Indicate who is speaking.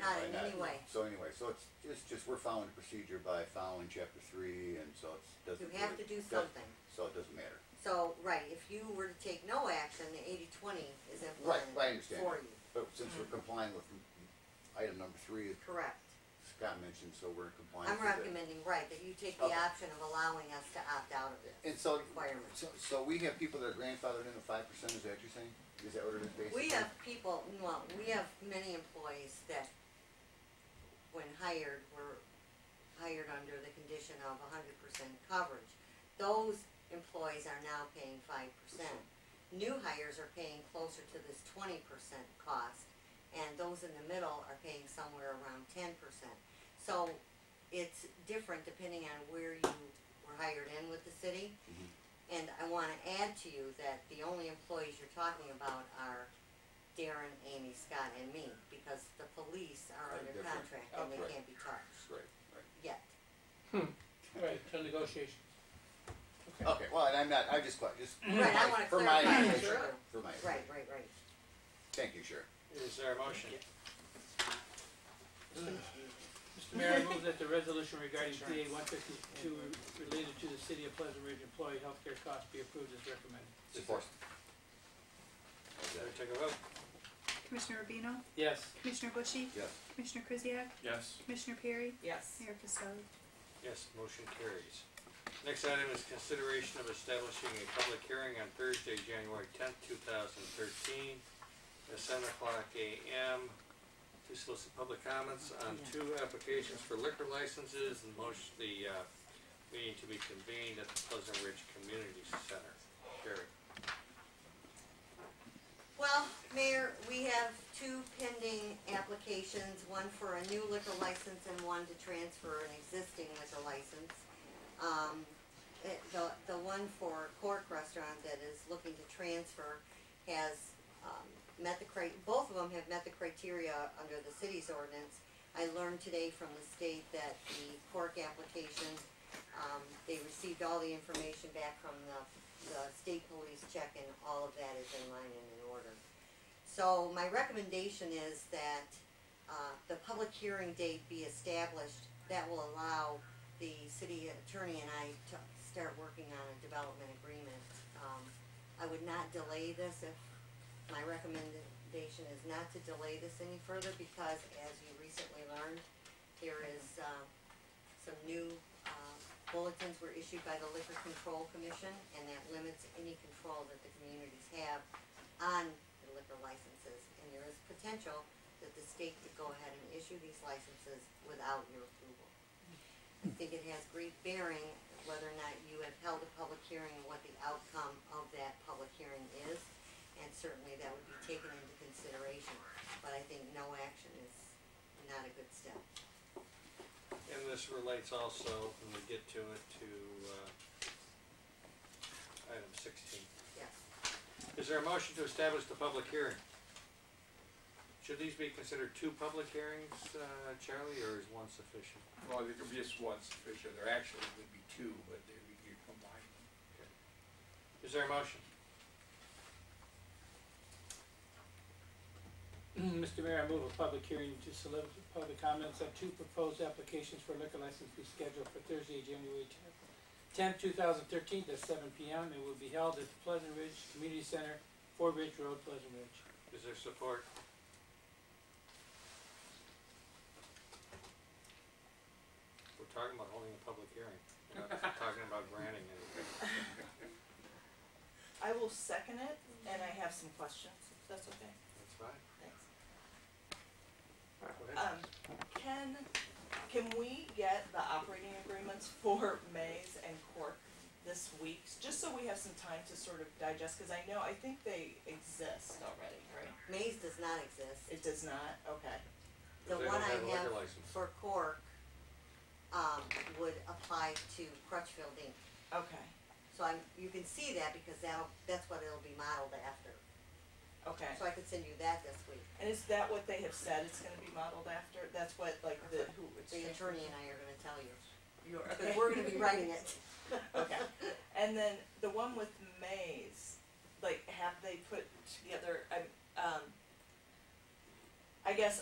Speaker 1: Not in
Speaker 2: by
Speaker 1: any way.
Speaker 2: So anyway, so it's, it's just, we're following the procedure by following chapter three, and so it's, doesn't.
Speaker 1: You have
Speaker 2: really-
Speaker 1: to do
Speaker 2: doesn't-
Speaker 1: something.
Speaker 2: So it doesn't matter.
Speaker 1: So, right, if you were to take no action, the eighty-twenty is
Speaker 2: Right,
Speaker 1: implemented
Speaker 2: I understand.
Speaker 1: for
Speaker 2: that.
Speaker 1: you, Mm.
Speaker 2: But since we're complying with item number three, as
Speaker 1: correct?
Speaker 2: Scott mentioned, so we're complying.
Speaker 1: I'm
Speaker 2: with it.
Speaker 1: recommending, right, that you take the
Speaker 2: Okay.
Speaker 1: option of allowing us to opt out of it.
Speaker 2: And so,
Speaker 1: Requirement.
Speaker 2: so, so we have people that are grandfathered in the five percent, is that what you're saying? Is that what it is basically?
Speaker 1: We have people, well, we have many employees that, when hired, were hired under the condition of hundred percent coverage. Those employees are now paying five percent. New hires are paying closer to this twenty percent cost, and those in the middle are paying somewhere around ten percent. So it's different depending on where you were hired in with the city.
Speaker 2: Mhm.
Speaker 1: And I wanna add to you that the only employees you're talking about are Darren, Amy, Scott, and me, because the police
Speaker 2: Are
Speaker 1: are under
Speaker 2: different.
Speaker 1: contract and they
Speaker 2: Outright.
Speaker 1: can't be charged
Speaker 2: Right, right.
Speaker 1: yet.
Speaker 3: Right, till negotiations.
Speaker 2: Okay, well, and I'm not, I just, quite- just.
Speaker 1: Right, I wanna
Speaker 2: for my
Speaker 1: clarify,
Speaker 2: information,
Speaker 1: sure.
Speaker 2: For my,
Speaker 1: Right, right, right.
Speaker 2: thank you, Sheriff.
Speaker 3: Is there a motion? Mr. Mayor, I move that the resolution regarding DA one fifty-two related to the city of Pleasant Ridge employee healthcare costs be approved as recommended.
Speaker 2: Support.
Speaker 3: Better take a vote.
Speaker 4: Commissioner Rubino,
Speaker 3: Yes.
Speaker 4: Commissioner Bushy,
Speaker 2: Yes,
Speaker 4: Commissioner Krzyjak,
Speaker 3: Yes.
Speaker 4: Commissioner Perry,
Speaker 5: Yes.
Speaker 4: Mayor Costello.
Speaker 3: Yes, motion carries. Next item is consideration of establishing a public hearing on Thursday, January tenth, two thousand thirteen, at seven o'clock AM to solicit public comments on two applications for liquor licenses and motion the, uh, meeting to be convened at the Pleasant Ridge Community Center. Sherry?
Speaker 1: Well, Mayor, we have two pending applications, one for a new liquor license and one to transfer an existing liquor license. Um, it- the, the one for Cork Restaurant that is looking to transfer has, um, met the cri, both of them have met the criteria under the city's ordinance. I learned today from the state that the Cork application, um, they received all the information back from the the state police check and all of that is in line and in order. So my recommendation is that, uh, the public hearing date be established. That will allow the city attorney and I to start working on a development agreement. Um, I would not delay this if, my recommendation is not to delay this any further because as you recently learned, there is, uh, some new, uh, bulletins were issued by the Liquor Control Commission, and that limits any control that the communities have on the liquor licenses. And there is potential that the state could go ahead and issue these licenses without your approval. I think it has great bearing whether or not you have held a public hearing and what the outcome of that public hearing is, and certainly that would be taken into consideration. But I think no action is not a good step.
Speaker 3: And this relates also, when we get to it, to, uh, item sixteen.
Speaker 1: Yes.
Speaker 3: Is there a motion to establish the public hearing? Should these be considered two public hearings, uh, Charlie, or is one sufficient?
Speaker 6: Well, there could be just one sufficient, there actually would be two, but they would be combined.
Speaker 3: Is there a motion?
Speaker 7: Mr. Mayor, I move a public hearing to solicit public comments on two proposed applications for liquor license be scheduled for Thursday, January tenth, two thousand thirteen, at seven P M. It will be held at the Pleasant Ridge Community Center, Fort Ridge Road, Pleasant Ridge.
Speaker 3: Is there support? We're talking about holding a public hearing, we're not talking about granting anything.
Speaker 5: I will second it, and I have some questions, if that's okay.
Speaker 3: That's fine.
Speaker 5: Thanks.
Speaker 3: Go ahead.
Speaker 5: Um, can, can we get the operating agreements for Mays and Cork this week? Just so we have some time to sort of digest, because I know, I think they exist already, right?
Speaker 1: Maze does not exist.
Speaker 5: It does not, okay.
Speaker 1: The
Speaker 3: They
Speaker 1: one
Speaker 3: don't
Speaker 1: I
Speaker 3: have a
Speaker 1: have
Speaker 3: liquor license.
Speaker 1: for Cork, um, would apply to Crutchfield Inc.
Speaker 5: Okay,
Speaker 1: So I'm, you can see that because that'll, that's what it'll be modeled after.
Speaker 5: okay.
Speaker 1: So I could send you that this week.
Speaker 5: And is that what they have said it's gonna be modeled after? That's what, like, the, who? it's-
Speaker 1: The attorney and I are gonna tell you,
Speaker 5: You're, okay.
Speaker 1: because we're gonna be writing it.
Speaker 5: Okay. And then the one with Maze, like, have they put together? I, um, I guess